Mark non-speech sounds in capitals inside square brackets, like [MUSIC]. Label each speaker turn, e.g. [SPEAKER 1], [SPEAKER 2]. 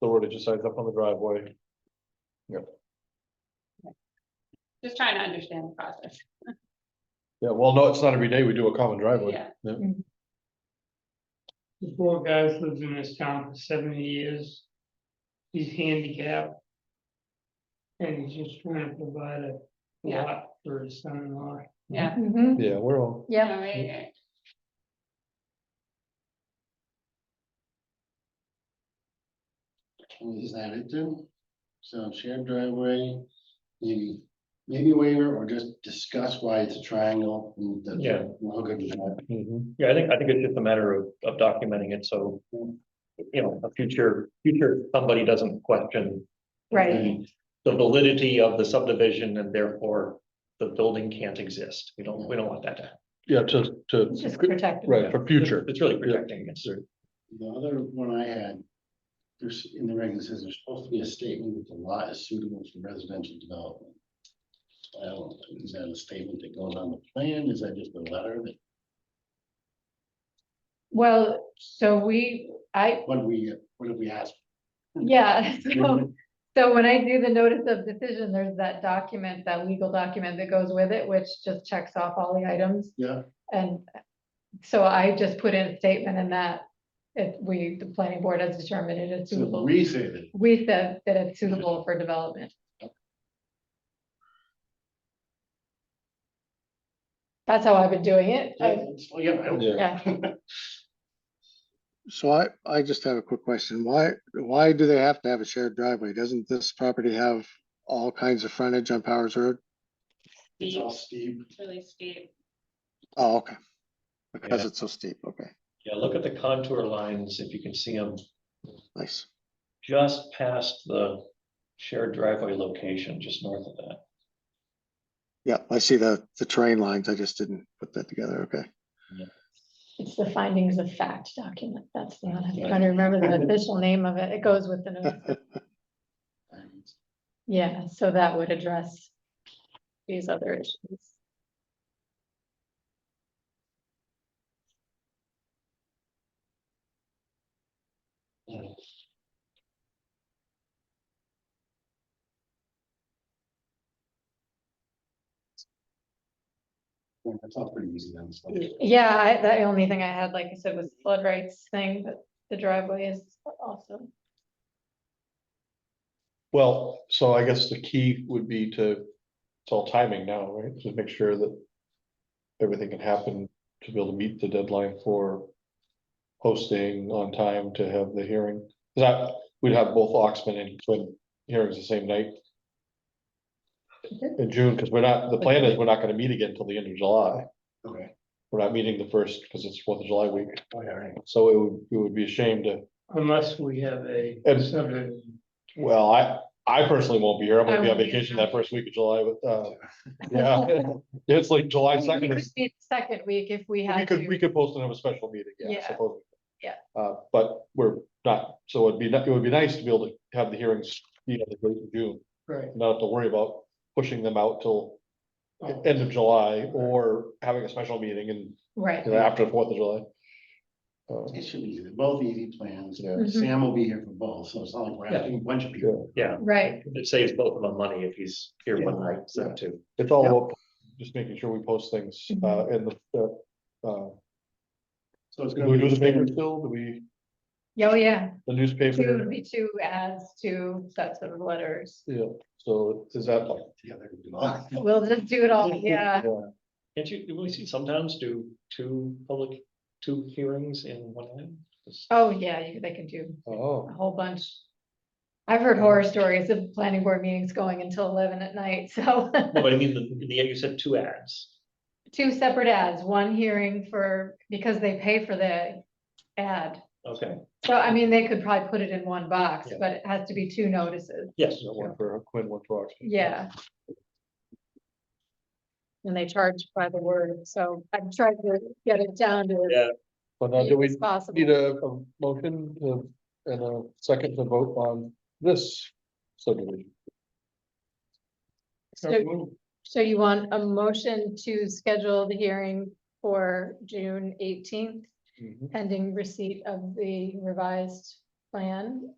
[SPEAKER 1] the wordage decides up on the driveway.
[SPEAKER 2] Just trying to understand the process.
[SPEAKER 1] Yeah, well, no, it's not every day we do a common driveway.
[SPEAKER 2] Yeah,
[SPEAKER 3] This poor guy's lived in this town for seventy years. He's handicapped. And he's just trying to provide a
[SPEAKER 2] yeah,
[SPEAKER 3] lot for his son-in-law.
[SPEAKER 2] yeah.
[SPEAKER 4] Mhm.
[SPEAKER 1] Yeah, we're all,
[SPEAKER 4] Yep,
[SPEAKER 2] All right, all right.
[SPEAKER 5] Is that it then? So shared driveway, maybe, maybe waiver or just discuss why it's a triangle. and that's
[SPEAKER 6] Yeah.
[SPEAKER 5] all good with that.
[SPEAKER 1] Mhm.
[SPEAKER 6] Yeah, I think, I think it's just a matter of, of documenting it, so, you know, a future, future, somebody doesn't question.
[SPEAKER 4] right,
[SPEAKER 6] The validity of the subdivision and therefore the building can't exist, we don't, we don't want that to happen.
[SPEAKER 1] yeah, to,
[SPEAKER 4] it's just
[SPEAKER 1] to,
[SPEAKER 4] protected.
[SPEAKER 1] right, for future.
[SPEAKER 6] It's really protecting against it.
[SPEAKER 5] The other one I had, there's in the regs, it says there's supposed to be a statement that the lot is suitable for residential development. I don't, is that a statement that goes on the plan? Is that just a letter that,
[SPEAKER 4] Well, so we, I,
[SPEAKER 5] what do we, what have
[SPEAKER 4] [LAUGHS]
[SPEAKER 5] we asked?
[SPEAKER 4] yeah, [LAUGHS]
[SPEAKER 5] Mm-hmm.
[SPEAKER 4] so, so when I do the notice of decision, there's that document, that legal document that goes with it, which just checks off all the items.
[SPEAKER 5] Yeah.
[SPEAKER 4] And so I just put in a statement in that if we, the planning board has determined it is
[SPEAKER 5] So
[SPEAKER 4] suitable.
[SPEAKER 5] we say that,
[SPEAKER 4] We said that it's suitable for development. That's how I've been doing it.
[SPEAKER 5] yeah,
[SPEAKER 4] I-
[SPEAKER 5] it's- well, yeah, I don't.
[SPEAKER 1] Yeah.
[SPEAKER 4] Yeah,
[SPEAKER 7] So I, I just have a quick question. Why, why do they have to have a shared driveway? Doesn't this property have all kinds of frontage on Powers Road?
[SPEAKER 5] It's
[SPEAKER 2] Steep,
[SPEAKER 5] all steep.
[SPEAKER 2] it's really steep.
[SPEAKER 7] Oh, okay. Because
[SPEAKER 6] Yeah.
[SPEAKER 7] it's so steep. Okay,
[SPEAKER 6] Yeah, look at the contour lines, if you can see them,
[SPEAKER 7] nice.
[SPEAKER 6] just past the shared driveway location, just north of that.
[SPEAKER 7] Yeah, I see the, the terrain lines. I just didn't put that together. Okay.
[SPEAKER 4] it's the findings of fact document. That's the one. I'm trying to remember the official name of it. It goes with the, notice.
[SPEAKER 5] and-
[SPEAKER 4] yeah, so that would address these other issues.
[SPEAKER 5] Yeah, That's all pretty easy then. so.
[SPEAKER 4] Yeah, I, the only thing I had, like I said, was the flood rights thing, but the driveway is also,
[SPEAKER 1] Well, so I guess the key would be to, it's all timing now, right? To make sure that everything can happen to be able to meet the deadline for posting on time to have the hearing. That, we'd have both Oxman and Quinn hearings the same night.
[SPEAKER 4] Okay.
[SPEAKER 1] In June, because we're not, the plan is we're not gonna meet again till the end of July.
[SPEAKER 5] Okay.
[SPEAKER 1] We're not meeting the first, because it's Fourth of July week,
[SPEAKER 5] Oh, yeah, right.
[SPEAKER 1] so it would, it would be a shame to,
[SPEAKER 3] Unless we have a
[SPEAKER 1] And-
[SPEAKER 3] subdivision.
[SPEAKER 1] well, I, I personally won't be here, I'm
[SPEAKER 4] I
[SPEAKER 1] gonna be on
[SPEAKER 4] won't be here.
[SPEAKER 1] vacation that first week of July, but, uh, yeah, it's like July
[SPEAKER 4] We
[SPEAKER 1] second.
[SPEAKER 4] could meet second week if we
[SPEAKER 1] We
[SPEAKER 4] had
[SPEAKER 1] could, we
[SPEAKER 4] to,
[SPEAKER 1] could post another special meeting, yeah, I
[SPEAKER 4] Yeah.
[SPEAKER 1] suppose.
[SPEAKER 4] Yeah.
[SPEAKER 1] Uh, but we're not, so it'd be, it would be nice to be able to have the hearings, you know, the date of June,
[SPEAKER 3] Right.
[SPEAKER 1] not have to worry about pushing them out till
[SPEAKER 3] Oh,
[SPEAKER 1] end of July or having a special meeting and
[SPEAKER 4] right,
[SPEAKER 1] you know, after the Fourth of July. Uh,
[SPEAKER 5] It should be, easy. They're both easy plans.
[SPEAKER 1] Yeah.
[SPEAKER 4] Mhm.
[SPEAKER 5] Sam will be here for both, so it's not like we're asking a bunch of people.
[SPEAKER 6] Yeah,
[SPEAKER 4] right,
[SPEAKER 6] it saves both of them money if he's here one night, so too.
[SPEAKER 1] It's all about just making sure we post things,
[SPEAKER 4] Mm-hmm.
[SPEAKER 1] uh, in the, uh, uh,
[SPEAKER 5] So it's
[SPEAKER 1] do
[SPEAKER 5] gonna
[SPEAKER 1] we
[SPEAKER 5] be.
[SPEAKER 1] do the paper still? Do we,
[SPEAKER 4] Yeah, oh, yeah.
[SPEAKER 1] the
[SPEAKER 4] Two
[SPEAKER 1] newspaper?
[SPEAKER 4] would be two as two sets of letters.
[SPEAKER 1] Yeah, so is that like?
[SPEAKER 5] Yeah, they're gonna do all-
[SPEAKER 4] We'll just do it all, yeah.
[SPEAKER 6] Can't you, do we see sometimes do two public, two hearings in one night? Just-
[SPEAKER 4] Oh, yeah, you- they can do
[SPEAKER 1] Oh.
[SPEAKER 4] a whole bunch. I've heard horror stories of planning board meetings going until eleven at night, [LAUGHS] so
[SPEAKER 6] No, But I mean, the, the, you said two ads.
[SPEAKER 4] two separate ads, one hearing for, because they pay for the ad.
[SPEAKER 6] Okay,
[SPEAKER 4] So I mean, they could probably put it in one box,
[SPEAKER 6] Yeah.
[SPEAKER 4] but it has to be two notices,
[SPEAKER 6] yes,
[SPEAKER 1] Yeah, One for Quinn, one for Oxman.
[SPEAKER 4] yeah. And they charge by the word, so I've tried to get it down to
[SPEAKER 6] Yeah.
[SPEAKER 4] as
[SPEAKER 1] But now do
[SPEAKER 4] few
[SPEAKER 1] we
[SPEAKER 4] as possible.
[SPEAKER 1] need a, a motion to, and a second to vote on this subdivision?
[SPEAKER 3] so
[SPEAKER 4] So-
[SPEAKER 3] moved.
[SPEAKER 4] So you want a motion to schedule the hearing for
[SPEAKER 1] Mm-hmm.
[SPEAKER 4] June eighteenth, pending receipt of the revised plan